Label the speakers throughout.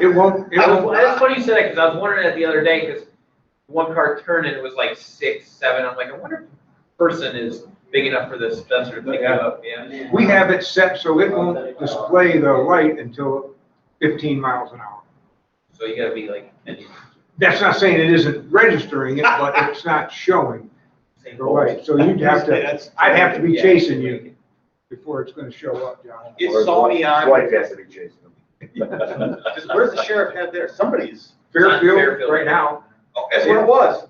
Speaker 1: It won't, it
Speaker 2: I
Speaker 1: won't,
Speaker 2: was, that's funny you said that, because I was wondering that the other day, because one car turned and it was like six, seven, I'm like, I wonder if a person is big enough for this Spencer to pick it
Speaker 1: Yeah.
Speaker 2: up, yeah.
Speaker 1: we have it set so it won't display the light until fifteen miles an hour.
Speaker 2: So you gotta be like,
Speaker 1: That's not saying it isn't registering it, but it's not showing
Speaker 2: same
Speaker 1: the
Speaker 2: goal.
Speaker 1: light. So you'd have to,
Speaker 3: That's-
Speaker 1: I'd have to be
Speaker 2: Yeah.
Speaker 1: chasing you before it's gonna show up, John.
Speaker 2: It's Sony on.
Speaker 4: Wife has to be chasing them.
Speaker 3: Because where's the sheriff head there? Somebody's,
Speaker 1: Fairfield, right now,
Speaker 3: oh, that's where it was.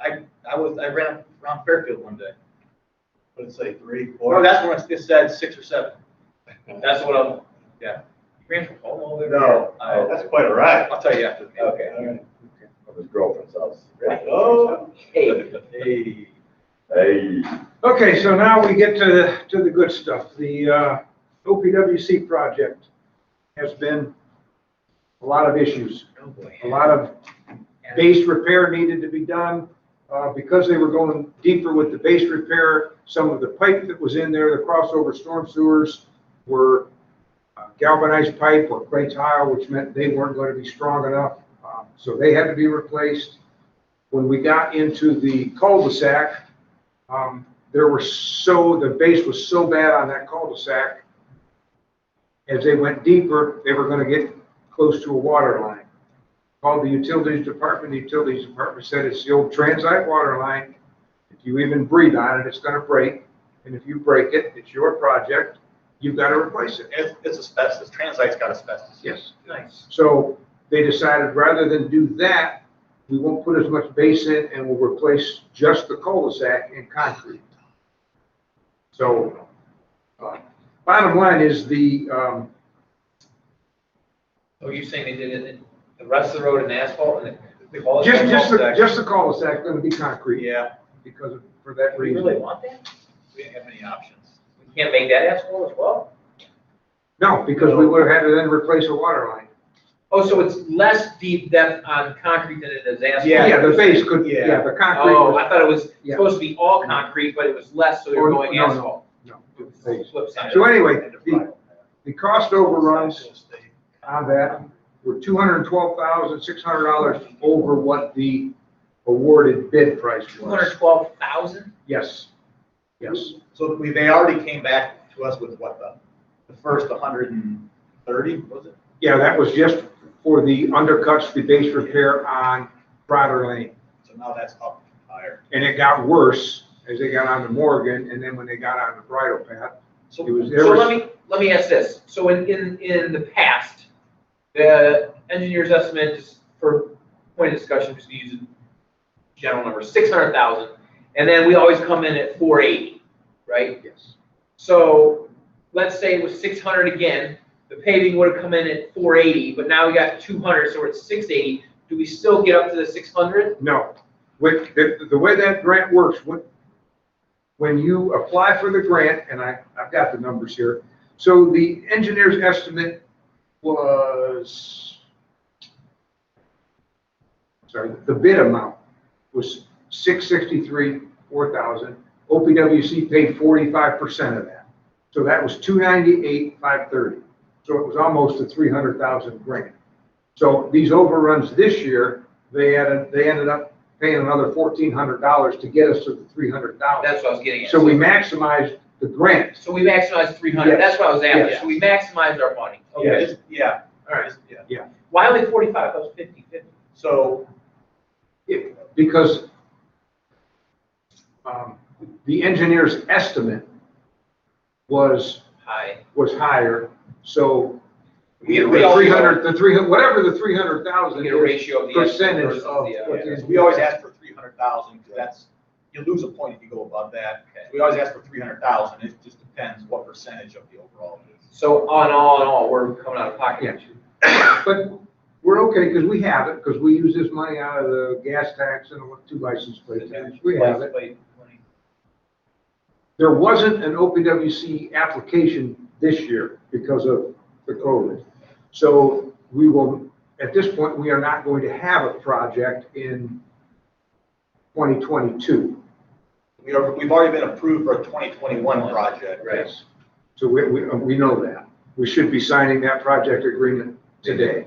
Speaker 3: I, I was, I ran around Fairfield one day.
Speaker 5: But it's like three,
Speaker 3: Oh,
Speaker 5: four.
Speaker 3: that's when it said six or seven. That's what I'm, yeah. You ran from home all the way there?
Speaker 4: No.
Speaker 3: I-
Speaker 5: That's quite a ride.
Speaker 3: I'll tell you after the meeting.
Speaker 5: Okay. all right.
Speaker 4: Of his girlfriend's house.
Speaker 5: Oh.
Speaker 3: Hey.
Speaker 5: Hey.
Speaker 4: Hey.
Speaker 1: Okay, so now we get to, the to the good stuff. The uh, OPWC project has been a lot of issues,
Speaker 3: Oh, boy.
Speaker 1: a lot of base repair needed to be done. Uh, Because they were going deeper with the base repair, some of the pipe that was in there, the crossover storm sewers were uh, galvanized pipe or clay tile, which meant they weren't going to be strong enough. Um, So they had to be replaced. When we got into the cul-de-sac, um, there were so, the base was so bad on that cul-de-sac. As they went deeper, they were going to get close to a water line called the utilities department, the utilities department said it's the old transite water line. If you even breathe on it, it's gonna break, and if you break it, it's your project, you've gotta replace it.
Speaker 3: It's, it's asbestos, transite's got asbestos.
Speaker 1: Yes.
Speaker 3: Nice.
Speaker 1: So they decided rather than do that, we won't put as much base in and we'll replace just the cul-de-sac in concrete. So, uh, bottom line is the, um,
Speaker 3: Oh, you're saying they did it, in the rest of the road in asphalt and the quality.
Speaker 1: just, just, the- just the cul-de-sac gonna be concrete
Speaker 3: Yeah.
Speaker 1: because of, for that
Speaker 3: We
Speaker 1: reason.
Speaker 3: really want that?
Speaker 5: We didn't have any options.
Speaker 3: We can't make that asphalt as well?
Speaker 1: No, because we would have had to then replace a water line.
Speaker 3: Oh, so it's less deep depth on concrete than it is asphalt?
Speaker 1: Yeah, the base could,
Speaker 5: Yeah.
Speaker 1: yeah, the concrete.
Speaker 3: Oh,
Speaker 1: was-
Speaker 3: I thought it was
Speaker 1: Yeah.
Speaker 3: supposed to be all concrete, but it was less, so you're
Speaker 1: Oh,
Speaker 3: going
Speaker 1: no, no,
Speaker 3: asphalt.
Speaker 1: no.
Speaker 3: It was the flip side.
Speaker 1: So anyway, the, the cost overruns on that were two hundred and twelve thousand, six hundred dollars over what the awarded bid price
Speaker 3: Two hundred
Speaker 1: was.
Speaker 3: twelve thousand?
Speaker 1: Yes, yes.
Speaker 5: So we, they already came back to us with what, the, the first hundred and thirty, was it?
Speaker 1: Yeah, that was just for the undercuts, the base repair on Broader Lane.
Speaker 5: So now that's up higher.
Speaker 1: And it got worse as they got onto Morgan and then when they got onto Bridle Path,
Speaker 5: So
Speaker 1: it was, there
Speaker 3: So let
Speaker 1: was,
Speaker 3: me, let me ask this. So in, in, in the past, the engineer's estimate, just for point of discussion, just using general number, six hundred thousand, and then we always come in at four eighty, right?
Speaker 1: yes,
Speaker 3: So let's say it was six hundred again, the paving would have come in at four eighty, but now we got two hundred, so we're at six eighty. Do we still get up to the six hundred?
Speaker 1: no. With, the, the way that grant works, when, when you apply for the grant, and I, I've got the numbers here. So the engineer's estimate was, sorry, the bid amount was six sixty-three, four thousand. OPWC paid forty-five percent of that. So that was two ninety-eight, five thirty. So it was almost a three hundred thousand grant. So these overruns this year, they added, they ended up paying another fourteen hundred dollars to get us to the three hundred thousand.
Speaker 3: That's what I was getting at.
Speaker 1: So we maximized the grant.
Speaker 3: So we maximized three hundred,
Speaker 1: Yes.
Speaker 3: that's what I was after.
Speaker 1: Yes.
Speaker 3: So we maximized our money.
Speaker 5: Okay, it's- yeah, all right, yeah.
Speaker 3: Why only forty-five? That was fifty-fifty.
Speaker 5: So,
Speaker 1: because um, the engineer's estimate was,
Speaker 3: Hi.
Speaker 1: was higher, so
Speaker 3: We-
Speaker 1: the
Speaker 3: we always-
Speaker 1: 300, the 300, whatever the 300,000
Speaker 3: Get a
Speaker 1: is,
Speaker 3: ratio of the.
Speaker 1: percentage
Speaker 3: versus
Speaker 1: of
Speaker 3: the, uh,
Speaker 1: what
Speaker 5: yeah,
Speaker 1: is-
Speaker 5: so we always ask for three hundred thousand, because that's, you lose a point if you go above that.
Speaker 3: Okay.
Speaker 5: We always ask for three hundred thousand, it just depends what percentage of the overall it is.
Speaker 3: So on all in all, we're coming out of pocket.
Speaker 1: but we're okay, because we have it, because we use this money out of the gas tax and the two license plate tax, we have it. There wasn't an OPWC application this year because of the COVID. So we will, at this point, we are not going to have a project in 2022.
Speaker 5: We are, we've already been approved for a twenty twenty-one project.
Speaker 3: Right.
Speaker 1: So we, we, we know that. We should be signing that project agreement today.